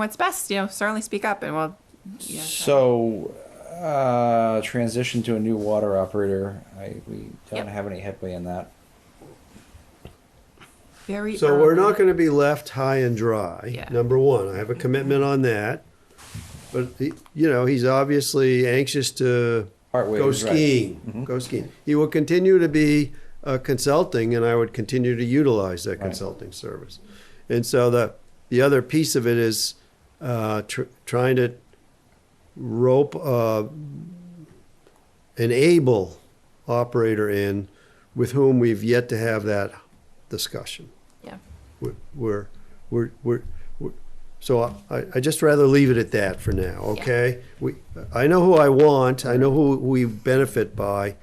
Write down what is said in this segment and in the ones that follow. what's best, you know, certainly speak up and we'll. Yeah. So, uh, transition to a new water operator. I, we don't Yep. have any headway in that. Very. So we're early. not going to be left high and dry. Yeah. Number one, I have a commitment on that. But the, you know, he's obviously anxious to Part ways, go right. Mm-hmm. skiing. Go skiing. He will continue to be uh, consulting, and I would continue to utilize that Right. consulting service. And so the the other piece of it is uh, tr- trying to rope uh, an able operator in with whom we've yet to have that discussion Yeah. we're, we're, we're, we're, we're so I, I just rather leave it at that for now, okay? We, I know who I want, I know who we benefit by.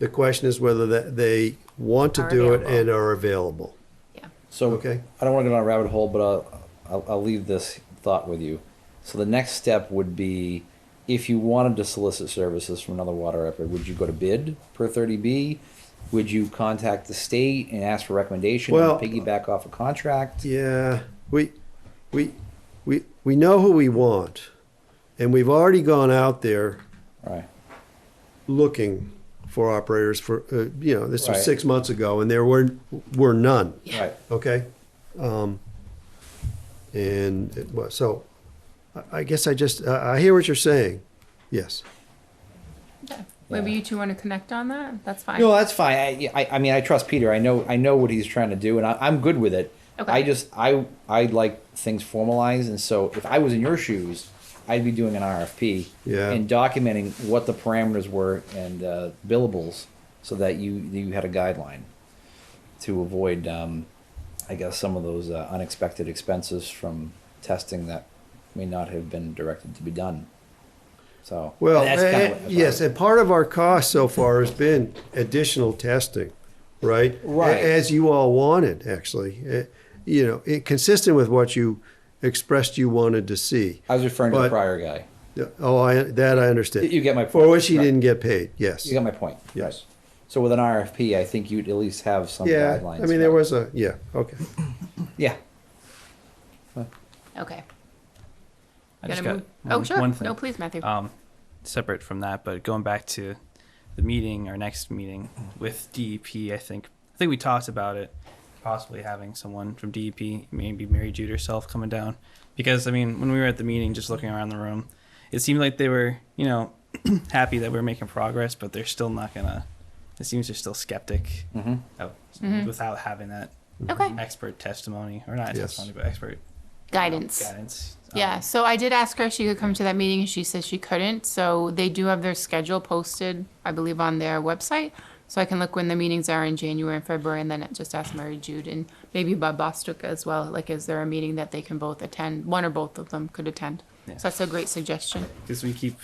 The question is whether that they want to Are do it available. and are available. Yeah. So Okay. I don't want to go down a rabbit hole, but I'll, I'll, I'll leave this thought with you. So the next step would be, if you wanted to solicit services from another water operator, would you go to bid per thirty B? Would you contact the state and ask for recommendation Well- and piggyback off a contract? Yeah, we, we, we, we know who we want. And we've already gone out there Right. looking for operators for, uh, you know, this Right. was six months ago and there were, were none. Right. Okay. Um, and it was, so I- I guess I just, I I hear what you're saying. Yes. Maybe Yeah. you two want to connect on that. That's fine. No, that's fine. I, I, I mean, I trust Peter. I know, I know what he's trying to do, and I, I'm good with it. Okay. I just, I, I like things formalized, and so if I was in your shoes, I'd be doing an RFP Yeah. and documenting what the parameters were and uh, billables, so that you you had a guideline to avoid, um, I guess, some of those uh, unexpected expenses from testing that may not have been directed to be done. So Well, and that's kinda eh, what- that's yes, what- and part of our cost so far has been additional testing, right? Right. A- As you all wanted, actually. Eh, You know, it- consistent with what you expressed you wanted to see. I was referring to the But- prior guy. Oh, I, that I understand. You get my For point, which he right. didn't get paid, yes. You got my point. Yes. Right. So with an RFP, I think you'd at least have some Yeah, guidelines. I mean, there about- was a, yeah, okay. Yeah. Okay. I Gotta just got move- oh, one- sure. one thing. No, please, Matthew. Um, separate from that, but going back to the meeting, our next meeting with DEP, I think I think we talked about it, possibly having someone from DEP, maybe Mary Jude herself, coming down, because I mean, when we were at the meeting, just looking around the room, it seemed like they were, you know, happy that we are making progress, but they're still not gonna. It seems they're still skeptic Mhm. of, Mhm. without having that okay. expert testimony, or not Yes. testimony, but expert Guidance. guidance. Um, Yeah. So I did ask her if she could come to that meeting, and she said she couldn't. So they do have their schedule posted, I believe, on their website. So I can look when the meetings are in January and February, and then just ask Mary Jude and maybe Bob Bostic as well. Like, is there a meeting that they can both attend? One or both of them could attend. Yeah. So that's a great suggestion. because we keep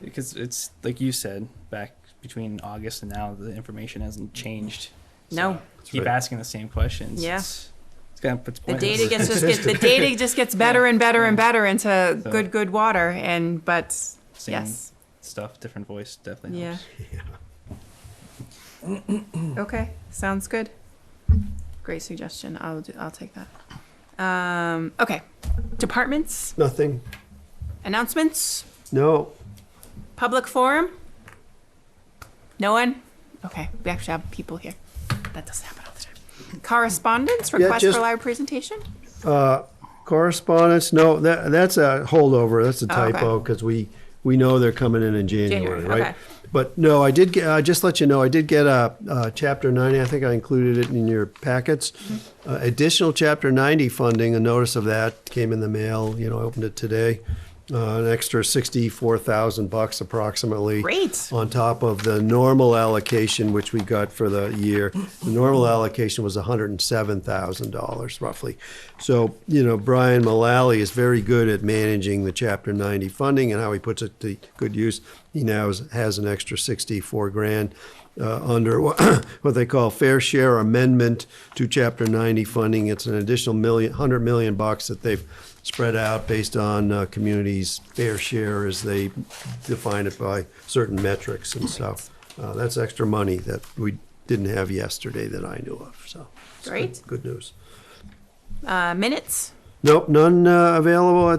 because it's like you said back between August and now the information hasn't changed. No. keep right. asking the same questions. Yeah. it's, it's gonna put The data gets just gets, the data just gets better and better and better into So- good good water and but Same yes stuff, different voice definitely. yeah. Helps. okay, sounds good. Great suggestion. I'll do, I'll take that. Um, okay, departments Nothing, announcements no, public forum. No one. Okay, we actually have people here. That doesn't happen all the time. Correspondence request just- for live presentation. Uh, Correspondence, no, that, that's a holdover, that's a Oh, okay. typo, because we, we know they're coming in in January, January, okay. right? But no, I did, get. I just let you know, I did get a, uh, chapter ninety, I think I included it in your packets. Mm-hmm. Uh, Additional chapter ninety funding, a notice of that came in the mail, you know, I opened it today. Uh, an extra sixty-four thousand bucks approximately Great. on top of the normal allocation, which we got for the year. The normal allocation was $107,000 roughly. So, you know, Brian Mullally is very good at managing the Chapter 90 funding and how he puts it to good use. He now is- has an extra 64 grand uh, under what what they call fair share amendment to Chapter 90 funding. It's an additional million, 100 million bucks that they've spread out based on uh, communities' fair share as they define it by certain metrics. And so uh, that's extra money that we didn't have yesterday that I knew of. So it's good- Great. Good news. Uh, minutes. Nope, none uh, available at